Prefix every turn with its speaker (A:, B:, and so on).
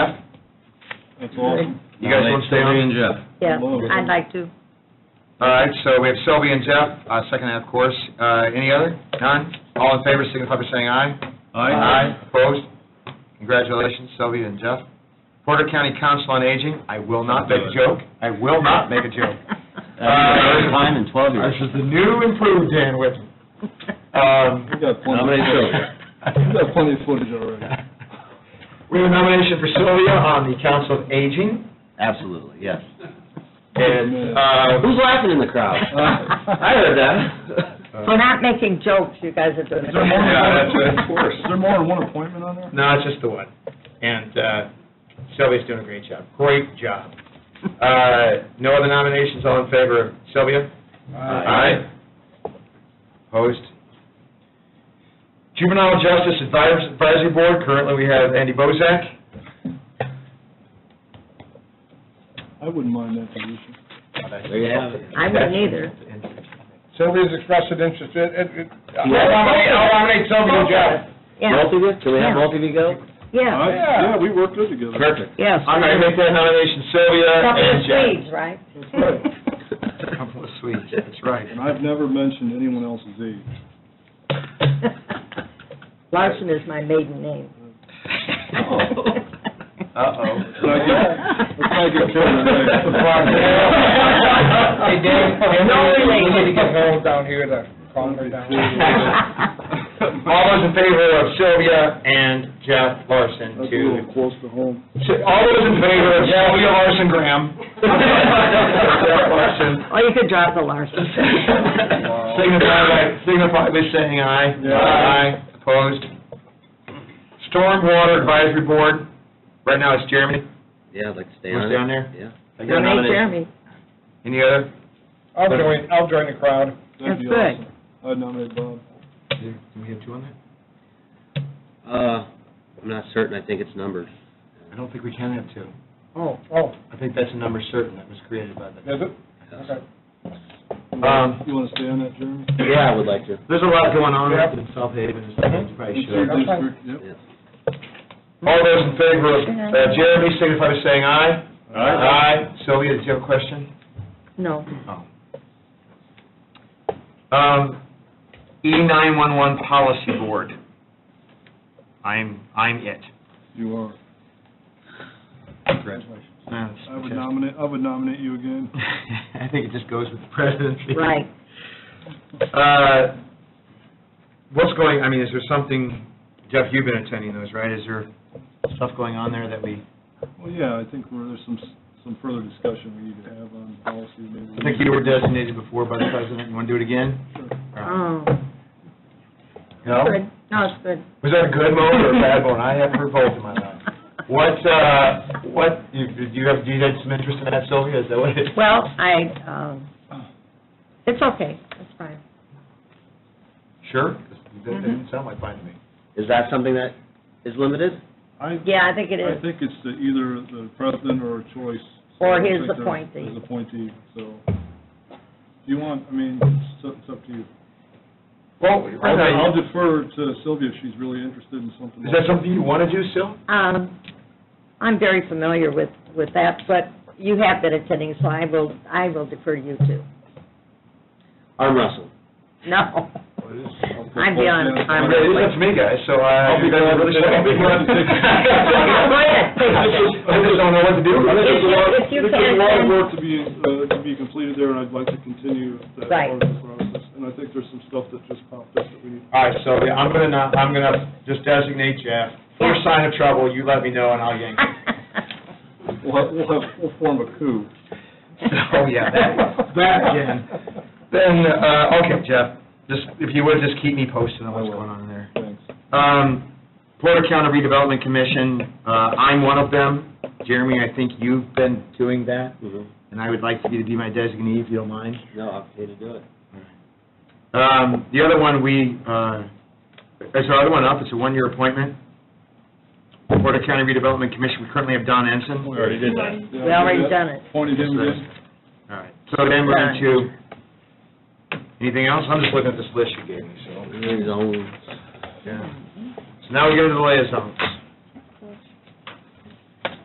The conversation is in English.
A: That's awesome.
B: You guys want to stay on?
C: Sylvia and Jeff.
D: Yeah,
A: Hello.
D: I'd like to.
B: All right, so we have Sylvia and Jeff, uh, second half, of course. Uh, Any other? None? All in favor, signify by saying aye. Opposed? Congratulations, Sylvia and Jeff. Porter County Council on Aging, I will not make a joke. I will not make a joke.
C: First time in 12 years.
B: This is the new improved Dan Whitten.
A: We
B: Um,
A: got plenty.
C: Nominate
A: of footage.
C: Sylvia.
A: We got plenty of footage already.
B: We have a nomination for Sylvia on the Council of Aging.
C: Absolutely, yes.
B: And uh,
C: Who's laughing in the crowd? I heard that.
D: We're not making jokes, you guys are doing
A: Is there more than
D: it.
B: Yeah,
A: one
B: that's right, of
A: appointment?
B: course.
A: Is there more than one appointment on there?
B: No, it's just the one. And uh, Sylvia's doing a great job. Great job. Uh, No other nominations, all in favor of Sylvia?
C: Aye.
B: Opposed? Juvenile Justice Advis- Advisory Board, currently we have Andy Bozak.
A: I wouldn't mind that position.
C: There you have it.
D: I wouldn't either.
E: Sylvia's expressed an interest, it, it, it- I'll
C: Yeah.
E: nominate, I'll nominate Sylvia and Jeff.
D: Yeah,
C: Both of you? Can we have
D: Yeah.
C: both of you go?
D: yeah,
A: I- Yeah, we work good together.
B: Perfect.
D: yes.
B: I'm going to make that nomination Sylvia
D: Couple
B: and
D: of
B: Jeff.
D: Swedes, right?
A: That's right.
B: Couple of Swedes, that's right.
A: And I've never mentioned anyone else's age.
D: Larson is my maiden name.
B: Uh-oh.
A: It's not good- it's not good children,
B: Hey,
A: right?
B: Dave,
E: No,
B: we
E: we
B: need
E: need
B: to
E: to
B: get
E: get hold down here to calm her down.
B: All those in favor of Sylvia and Jeff Larson
A: That's a
B: to,
A: little close to home.
B: all those in favor of Sylvia Larson Graham? Jeff Larson.
D: Oh, you could drop the Larson.
B: Signify by, signify by saying aye.
A: Yeah.
B: Aye, opposed. Stormwater Advisory Board, right now it's Jeremy.
C: Yeah, I'd like to stay
B: Wanna
C: on
B: stay
C: it.
B: on there?
C: Yeah.
B: I got a
D: Don't hate
B: nomination.
D: Jeremy.
B: Any other?
E: I'll join, I'll join the crowd.
A: That'd be
D: That's
A: awesome. I'd nominate Bob.
B: Do we have two on there?
C: Uh, I'm not certain, I think it's numbered.
B: I don't think we can have two.
E: Oh, oh,
B: I think that's a number certain that was created by the.
E: is it? Okay.
A: You
B: Um,
A: wanna- You want to stay on that, Jeremy?
C: Yeah, I would like Uh-huh. to.
B: There's a lot going on
E: Yep.
B: in South Haven, and stuff, you probably should.
A: Third district, yep.
C: Yeah.
B: All those in favor of uh, Jeremy, signify by saying aye. Aye. Sylvia, did you have a question?
D: No.
B: Um, E911 Policy Board. I'm, I'm it.
A: You are.
B: Congratulations.
A: I would nominate, I would nominate you again.
B: I think it just goes with the presidency.
D: Right.
B: Uh, What's going, I mean, is there something, Jeff, you've been attending those, right? Is there stuff going on there that we,
A: Well, yeah, I think we're- there's some, s- some further discussion we need to have on policy. maybe.
B: I think you were designated before by the president, you want to do it again?
D: Oh,
B: No?
D: good. No, it's good.
B: Was that a good moan or a bad moan? I haven't heard both in my life. What, uh, what, you, do you have, do you have some interest in that, Sylvia? Is that what it is?
D: Well, I, um, it's okay, it's fine.
B: Sure? 'Cause That that didn't sound like fine to me.
C: Is that something that is limited?
A: I,
D: Yeah, I think it
A: I
D: is.
A: think it's the- either the president or a choice. So
D: Or
A: I
D: his
A: think there's-
D: appointee.
A: His appointee, so. Do you want, I mean, it's up- it's up to you.
B: Well,
A: I'll defer to Sylvia if she's really interested in something.
B: Is that something you want to do, Syl?
D: Um, I'm very familiar with, with that, but you have been attending, so I will, I will defer you to.
C: Arm wrestle.
D: No. I'm beyond the time.
B: Yeah, it's up to me, guys, so I.
A: I'll be glad to- I'll be glad to take-
D: Go ahead, please.
B: I just, I just don't know what to do.
D: If you-
A: There's
D: if you
A: a
D: can,
A: lot of
D: then-
A: work to be, uh, to be completed there, and I'd like to continue that
D: Right.
A: part of the process. And I think there's some stuff that just popped up that we need.
B: All right, so yeah, I'm gonna not, I'm gonna just designate Jeff. First sign of trouble, you let me know and I'll yank. it.
A: We'll have, we'll have, we'll form a coup.
B: Oh, yeah, that, that again. Then, uh, okay, Jeff, just, if you would, just keep me posted on what's going on in there.
A: Thanks.
B: Um, Porter County Redevelopment Commission, uh, I'm one of them. Jeremy, I think you've been doing that,
C: Mhm.
B: and I would like you to be my designee, if you don't mind.
C: No, I'm here to do it.
B: Um, the other one, we, uh, is our other one up? It's a one-year appointment. Porter County Redevelopment Commission, we currently have Don Ensign. All
A: already did that.
D: We already done it.
A: Appointed him
B: Yes,
A: again.
B: right, so then we're into, anything else? I'm just looking at this list you gave me, so.
C: He's on.
B: Yeah. So now we go to the liaisons.